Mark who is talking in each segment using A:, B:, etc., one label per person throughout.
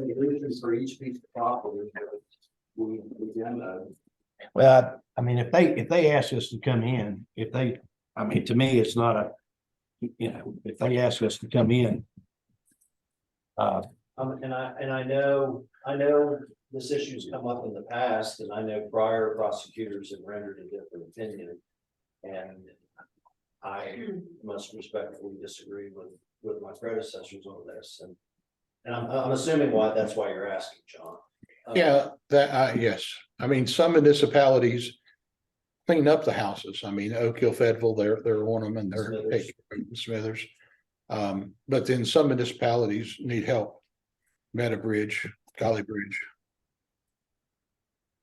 A: resolutions for each piece of property. We, we done, uh,
B: Well, I mean, if they, if they ask us to come in, if they, I mean, to me, it's not a, you know, if they ask us to come in. Uh,
A: Um, and I, and I know, I know this issue's come up in the past, and I know prior prosecutors have rendered a different opinion. And I must respectfully disagree with, with my predecessors on this, and. And I'm, I'm assuming why, that's why you're asking, John. Uh,
C: Yeah, that, I, yes, I mean, some municipalities. Clean up the houses, I mean, Oak Hill, Fayetteville, they're, they're one of them and they're
A: Smithers.
C: taking- Smithers. Um, but then some municipalities need help. Meta Bridge, Golly Bridge.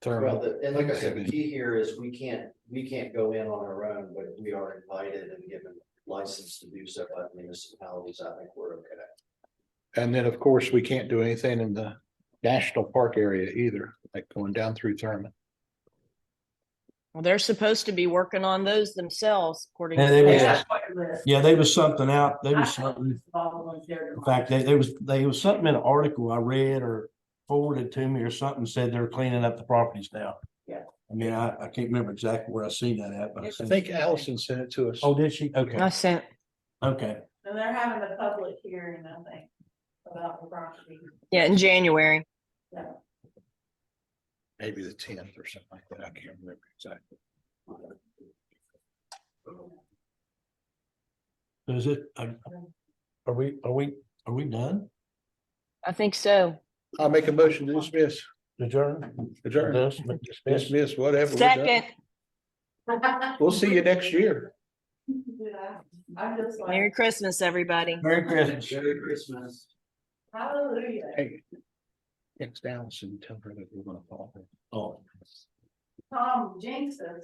A: Well,
C: Thurman,
A: the- and like I said, the key here is we can't, we can't go in on our own, but we are invited and given license to do so by the municipalities, I think we're okay.
C: and then, of course, we can't do anything in the national park area either, like going down through Thurman.
D: Well, they're supposed to be working on those themselves, according
B: Yeah, they
D: to.
B: were.
E: Yeah, quite a list.
B: yeah, they was something out, They
E: I
B: was
E: have
B: something,
E: all the ones there.
B: in fact, they, there was, they was something in an article I read or forwarded to me or something said they're cleaning up the properties now.
E: Yeah.
B: I mean, I, I can't remember exactly where I seen that at, but I
E: Yes,
C: I
B: seen,
C: think Allison sent it to us.
B: oh, did she? Okay,
D: I sent,
B: okay.
E: And they're having a public hearing, I think, about the property.
D: yeah, in January.
C: Maybe the tenth or something like that, I can't remember exactly.
B: So Is it, uh, are we, are we, are we done?
D: I think so.
C: I'll make a motion to dismiss,
B: Adjourn?
C: adjourn,
B: Dismiss? Dismiss?
C: dismiss, whatever. we're done.
D: Second,
C: We'll see you next year.
E: Yeah, I'm just
D: Merry
E: like,
D: Christmas, everybody.
B: Merry Christmas.
A: Merry Christmas.
E: hallelujah.
C: Hey. Next Allison, tell her that we're gonna call her.
B: Oh.
E: Tom Jinxes.